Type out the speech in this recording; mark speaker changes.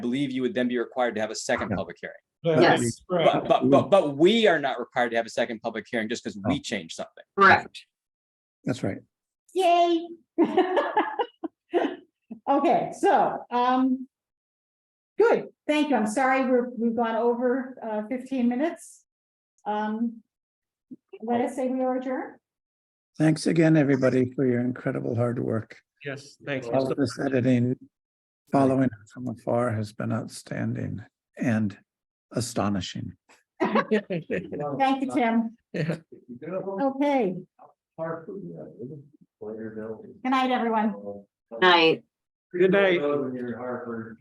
Speaker 1: believe you would then be required to have a second
Speaker 2: No.
Speaker 1: public hearing.
Speaker 3: Yes.
Speaker 4: That's correct.
Speaker 1: But, but, but, but we are not required to have a second public hearing just because we changed something.
Speaker 3: Correct.
Speaker 2: That's right.
Speaker 5: Yay. Okay, so, um. Good, thank you. I'm sorry, we're, we've gone over, uh, fifteen minutes. Um. Let us say we are adjourned.
Speaker 2: Thanks again, everybody, for your incredible hard work.
Speaker 4: Yes, thanks.
Speaker 2: All of this editing, following from afar has been outstanding and astonishing.
Speaker 5: Thank you, Tim.
Speaker 4: Yeah.
Speaker 5: Okay, good night, everyone.
Speaker 3: Night.
Speaker 4: Good night.